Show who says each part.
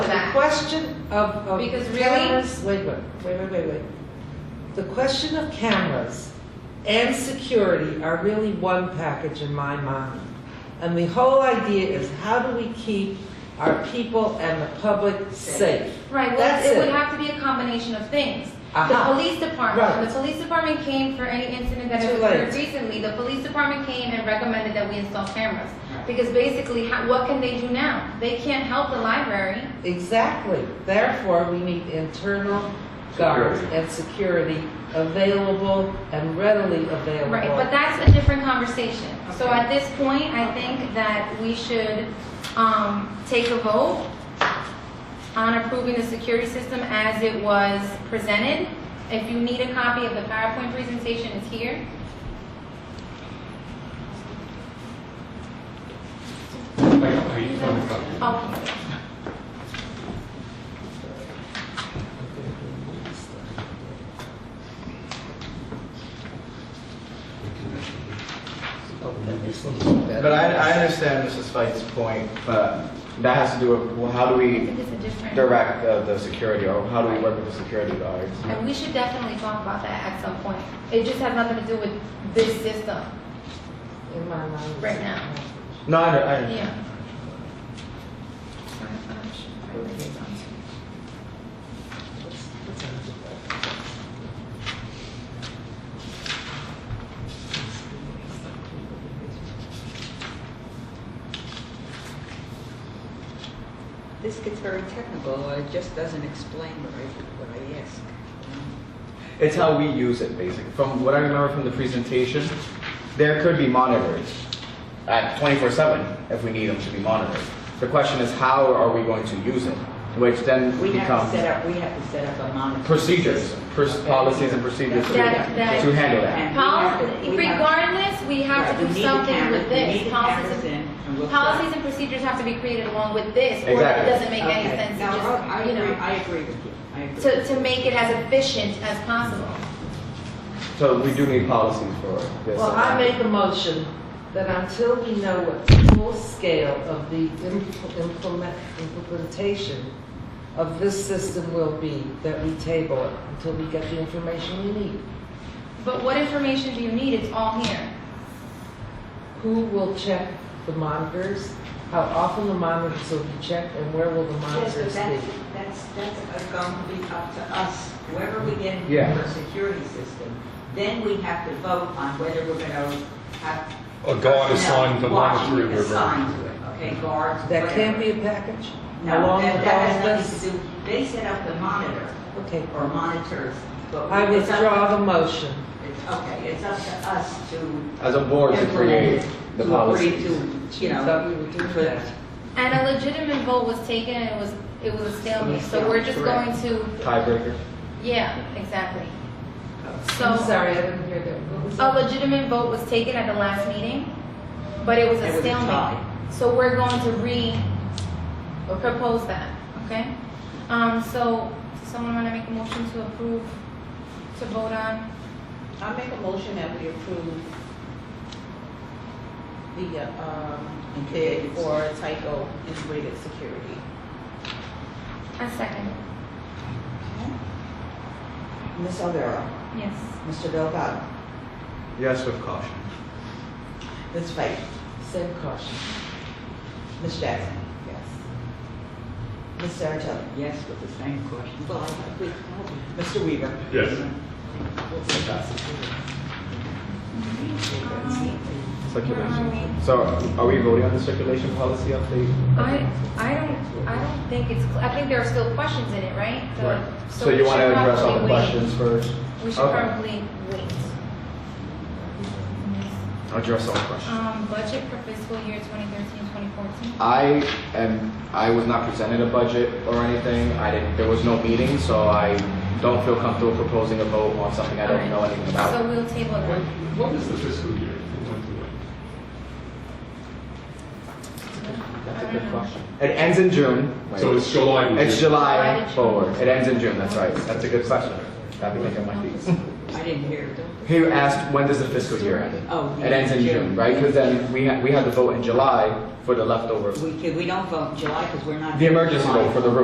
Speaker 1: question of, of
Speaker 2: Because really-
Speaker 1: cameras, wait, wait, wait, wait, wait, wait. The question of cameras and security are really one package in my mind. And the whole idea is how do we keep our people and the public safe?
Speaker 2: Right, well,
Speaker 1: That's
Speaker 2: it would
Speaker 1: it.
Speaker 2: have to be a combination of things. The
Speaker 1: Aha.
Speaker 2: police department,
Speaker 1: Right.
Speaker 2: when the police department came for any incident that
Speaker 1: Too
Speaker 2: had
Speaker 1: late.
Speaker 2: occurred recently, the police department came and recommended that we install cameras. Because basically, how- what can they do now? They can't help the library.
Speaker 1: Exactly. Therefore, we need internal guards
Speaker 3: Security.
Speaker 1: and security available and readily available.
Speaker 2: Right, but that's a different conversation. So
Speaker 1: Okay.
Speaker 2: at this point, I think that we should um, take a vote on approving the security system as it was presented. If you need a copy of the PowerPoint presentation, it's here.
Speaker 3: Like, are you from the company?
Speaker 2: Oh,
Speaker 4: But I, I understand Mrs. Fite's point, but that has to do with, well, how do
Speaker 2: I
Speaker 4: we
Speaker 2: think it's a different.
Speaker 4: direct the, the security, or how do we work with the security guards?
Speaker 2: And we should definitely talk about that at some point. It just has nothing to do with this system
Speaker 1: In my mind. it's-
Speaker 2: right now.
Speaker 4: No, I, under- I, under-
Speaker 2: Yeah.
Speaker 5: This gets very technical, it just doesn't explain what I, what I ask.
Speaker 4: it's how we use it, basically. From what I remember from the presentation, there could be monitors at twenty-four seven if we need them to be monitored. The question is, how are we going to use it? Which then
Speaker 5: We have to
Speaker 4: becomes
Speaker 5: set up, we have to set up a monitoring.
Speaker 4: procedures,
Speaker 5: system.
Speaker 4: pers-
Speaker 5: Okay.
Speaker 4: policies and procedures to,
Speaker 2: That- that-
Speaker 4: to handle that.
Speaker 5: And we have to-
Speaker 2: Policy,
Speaker 5: we have-
Speaker 2: regardless, we have
Speaker 5: Right,
Speaker 2: to
Speaker 5: we
Speaker 2: do
Speaker 5: need the
Speaker 2: something
Speaker 5: cameras,
Speaker 2: with
Speaker 5: we
Speaker 2: this.
Speaker 5: need the cameras
Speaker 2: Policies
Speaker 5: in, and we'll-
Speaker 2: and, policies and procedures have to be created along with this, or it
Speaker 4: Exactly.
Speaker 2: doesn't make any
Speaker 5: Okay.
Speaker 2: sense to
Speaker 5: No, I
Speaker 2: just, you
Speaker 5: agree,
Speaker 2: know,
Speaker 5: I agree with you, I agree.
Speaker 2: to, to make it as efficient as possible.
Speaker 4: So we do need policies for this.
Speaker 1: Well, I make a motion that until we know what the full scale of the impl- implement- implementation of this system will be, that we table it until we get the information we need.
Speaker 2: But what information do you need? It's all here.
Speaker 1: Who will check the monitors? How often the monitors will be checked and where will the
Speaker 5: Yes, but
Speaker 1: monitors
Speaker 5: that's,
Speaker 1: be?
Speaker 5: that's, that's uh, going to be up to us, whoever we get into
Speaker 4: Yeah.
Speaker 5: our security system. Then we have to vote on whether we're going to have.
Speaker 3: A guard assigned to
Speaker 5: personnel watching
Speaker 3: monitoring
Speaker 5: and
Speaker 3: your
Speaker 5: Assigned to it, okay, guards,
Speaker 1: That can't
Speaker 5: whatever.
Speaker 1: be a package?
Speaker 5: No,
Speaker 1: Along
Speaker 5: that,
Speaker 1: with
Speaker 5: that
Speaker 1: all
Speaker 5: has
Speaker 1: of
Speaker 5: nothing
Speaker 1: this?
Speaker 5: to do, they set up the monitor
Speaker 1: Okay,
Speaker 5: or monitors, but.
Speaker 1: I
Speaker 5: it's up-
Speaker 1: withdraw the motion.
Speaker 5: it's- Okay, it's up to us to.
Speaker 4: As a board to create
Speaker 5: implement it,
Speaker 4: the
Speaker 5: to agree
Speaker 4: policies.
Speaker 5: To, you
Speaker 1: Thought we
Speaker 5: know,
Speaker 1: would do
Speaker 5: for
Speaker 1: that.
Speaker 2: And a legitimate vote was taken and it was, it was a stalemate, so we're just going
Speaker 5: Correct.
Speaker 2: to,
Speaker 4: Tiebreaker.
Speaker 2: yeah, exactly.
Speaker 1: I'm
Speaker 2: So,
Speaker 1: sorry, I didn't hear that. What was
Speaker 2: a
Speaker 1: that?
Speaker 2: legitimate vote was taken at the last meeting, but it was
Speaker 5: It
Speaker 2: a
Speaker 5: was a tie.
Speaker 2: stalemate. So we're going to re, propose that, okay? Um, so, does someone wanna make a motion to approve, to vote on?
Speaker 6: I make a motion that we approve the, uh, um, bid for Tyco Integrated Security.
Speaker 2: A second.
Speaker 6: Ms. Alvaro,
Speaker 2: Yes.
Speaker 6: Mr. Delgado,
Speaker 4: Yes, with caution.
Speaker 6: Ms. Fight,
Speaker 1: Same caution.
Speaker 6: Ms. Jackson. Yes. Ms. Saratelli,
Speaker 5: yes, with the same question. Well, I- we-
Speaker 6: Mr. Weaver.
Speaker 3: Yes.
Speaker 4: Um, Circulation. So are we voting on the circulation policy update?
Speaker 2: I, I don't, I don't think it's, cl- I think there are still questions in it, right? So-
Speaker 4: So you
Speaker 2: we
Speaker 4: want to
Speaker 2: should
Speaker 4: address all
Speaker 2: probably
Speaker 4: the
Speaker 2: wait.
Speaker 4: questions first?
Speaker 2: We should
Speaker 4: Okay.
Speaker 2: probably wait.
Speaker 4: Address all the questions.
Speaker 2: Um, budget for fiscal year 2013, 2014?
Speaker 4: I am, I was not presented a budget or anything. I didn't, there was no meeting, so I don't feel comfortable proposing a vote on something I don't know anything
Speaker 2: So
Speaker 4: about.
Speaker 2: we'll table
Speaker 3: What,
Speaker 2: that.
Speaker 3: what is the fiscal year from one to one?
Speaker 4: That's a good
Speaker 2: uh,
Speaker 4: question. It ends in June.
Speaker 3: So it's July. to
Speaker 4: It's
Speaker 3: June.
Speaker 4: July forward. It ends in June, that's right. That's a good question. That'd be making my fees.
Speaker 5: I didn't hear.
Speaker 4: He asked, when does the fiscal year end?
Speaker 5: Oh,
Speaker 4: It ends in June, right? Because then we had, we had to vote in July for the leftover,
Speaker 5: We, could- we don't vote in July because we're not.
Speaker 4: the emergency
Speaker 5: July.
Speaker 4: vote for the roof.